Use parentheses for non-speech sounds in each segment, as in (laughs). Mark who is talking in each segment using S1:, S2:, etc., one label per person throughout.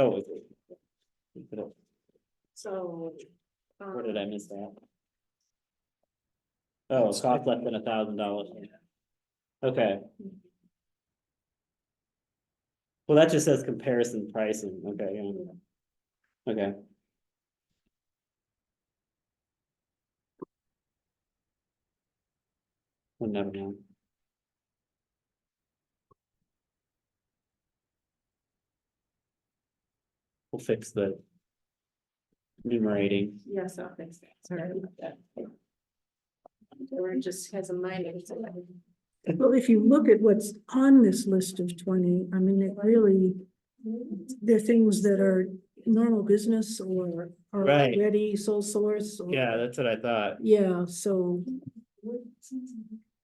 S1: Oh. it- it- we could have-
S2: So. um,
S1: Where did I miss that? Oh, cost less than a thousand dollars. Okay. Well, that just says comparison pricing, okay, yeah. Okay, we'll never know. We'll fix the numerating.
S2: Yes, I'll fix that. Sorry about that. Or it just has a minor. it's uh, a-
S3: Well, if you look at what's on this list of twenty, I mean, it really, they're things that are normal business or are
S1: Right.
S3: already sole source. or-
S1: Yeah, that's what I thought.
S3: Yeah, so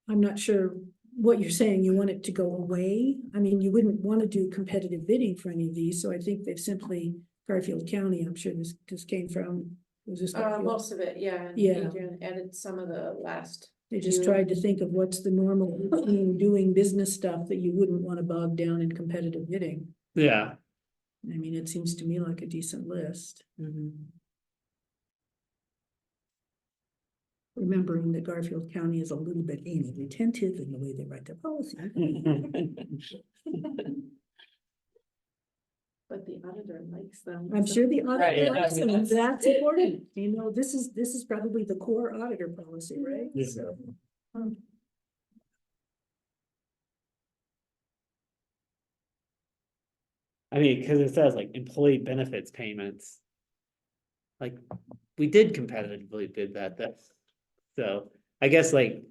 S3: I'm not sure what you're saying. You want it to go away? I mean, you wouldn't want to do competitive bidding for any of these, so I think they've simply, Garfield County, I'm sure this, this came from, was this
S2: Uh,
S3: Garfield?
S2: most of it, yeah. and
S3: Yeah.
S2: Adrian Added some of the last.
S3: They just
S2: few.
S3: tried to think of what's the normal, routine doing business stuff that you wouldn't want to bog down in competitive bidding.
S1: Yeah. (laughs)
S3: I mean, it seems to me like a decent list. Remembering that Garfield County is a little bit anal retentive in the way they write their policy.
S1: Mm-hmm.
S2: But the auditor likes them.
S3: I'm
S2: so-
S3: sure the
S1: Right, yeah,
S3: auditor, likes
S1: I mean,
S3: them.
S1: that's-
S3: that's important. You know, this is, this is probably the core auditor policy, right? Um,
S1: Yeah.
S3: So,
S1: I mean, cause it says like employee benefits payments. Like, we did competitively bid that, that's, so, I guess like,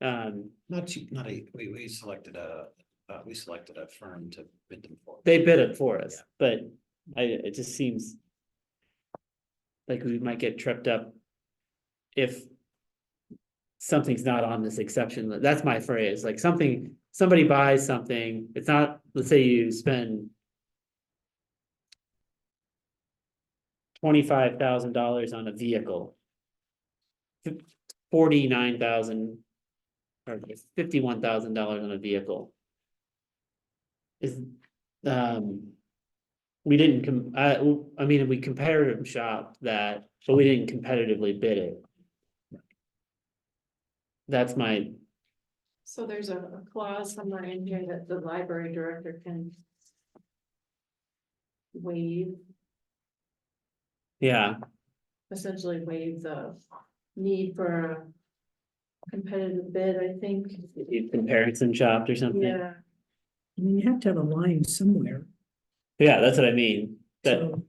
S1: um,
S4: Not cheap, not a, we, we selected a, uh, we selected a firm to bid them for.
S1: they bid it for us, but I, it just seems. Like we might get tripped up. If. Something's not on this exception, li- that's my phrase, like something, somebody buys something, it's not, let's say you spend. Twenty-five thousand dollars on a vehicle. Forty-nine thousand. Or fifty-one thousand dollars on a vehicle. Is, um. We didn't com- I, I mean, we comparative shop that, but we didn't competitively bid it. That's my,
S2: So there's a a clause somewhere in here that the library director can. Waive,
S1: yeah,
S2: essentially waive the need for. a Competitive bid, I think.
S1: comparison shop or something.
S2: Yeah.
S3: I mean, you have to have a line somewhere,
S1: Yeah, that's what I mean. That,
S3: so.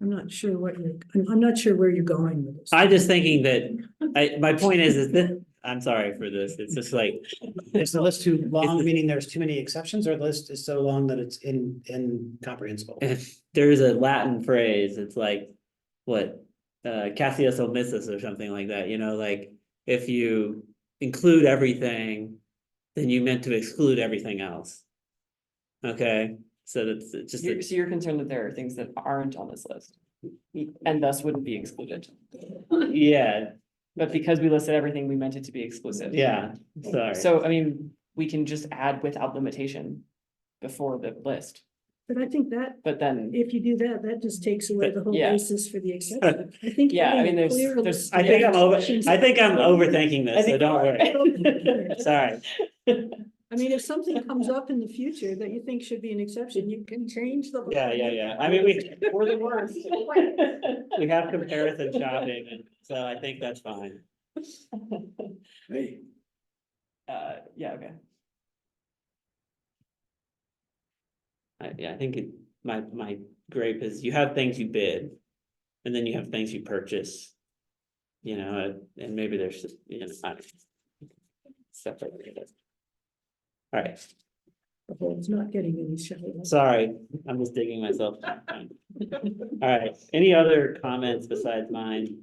S3: I'm not sure what you're, I'm, I'm not sure where you're going with this.
S1: I just thinking that, I, my point is, is that, I'm sorry for this, it's just like,
S4: Is the list too long,
S1: the-
S4: meaning there's too many exceptions, or the list is so long that it's in, incomprehensible?
S1: if there's a Latin phrase, it's like, what, uh, Cassius omissus or something like that, you know, like, if you include everything, then you meant to exclude everything else. Okay, so that's it's just,
S5: You're,
S1: a-
S5: so you're concerned that there are things that aren't on this list and thus wouldn't be excluded.
S1: (laughs) yeah,
S5: But because we listed everything, we meant it to be exclusive.
S1: yeah, sorry.
S5: So, I mean, we can just add without limitation before the list,
S3: But I think that
S5: but
S3: (laughs)
S5: then,
S3: If you do that, that just takes away the whole
S5: Yeah.
S3: basis for the exception. I think.
S5: Yeah, I
S3: having
S5: mean,
S3: a
S5: there's-
S3: clear
S5: there's-
S3: list
S1: I
S3: of
S1: think I'm over,
S3: exceptions-
S1: I think I'm overthinking
S5: I
S1: this, so
S5: think-
S1: don't
S5: (laughs)
S1: worry, sorry.
S3: I mean, if something comes up in the future that you think should be an exception, you can change the.
S1: Yeah, yeah, yeah, I mean, we,
S5: or the worst.
S1: we have comparison shopping, and so I think that's fine.
S5: (laughs) Uh, yeah, okay.
S1: I, yeah, I think it, my, my gripe is you have things you bid, and then you have things you purchase. You know, and- and maybe there's, just, you know, I don't know. Separate. All right,
S3: Well, It's not getting any shallow.
S1: sorry, I'm just digging myself. All right, any other comments besides mine?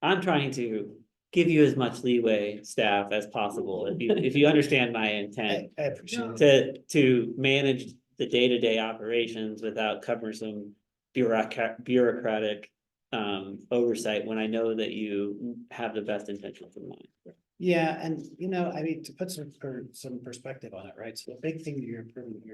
S1: I'm trying to give you as much leeway, staff, as possible, if you, if you understand my intent.
S4: I appreciate it.
S1: to, to manage the day-to-day operations without cumbersome bureaucratic, bureaucratic um, oversight when I know that you have the best intentions in mind.
S4: Yeah, and you know, I mean, to put some, per- some perspective on it, right? So the big thing that you're improving here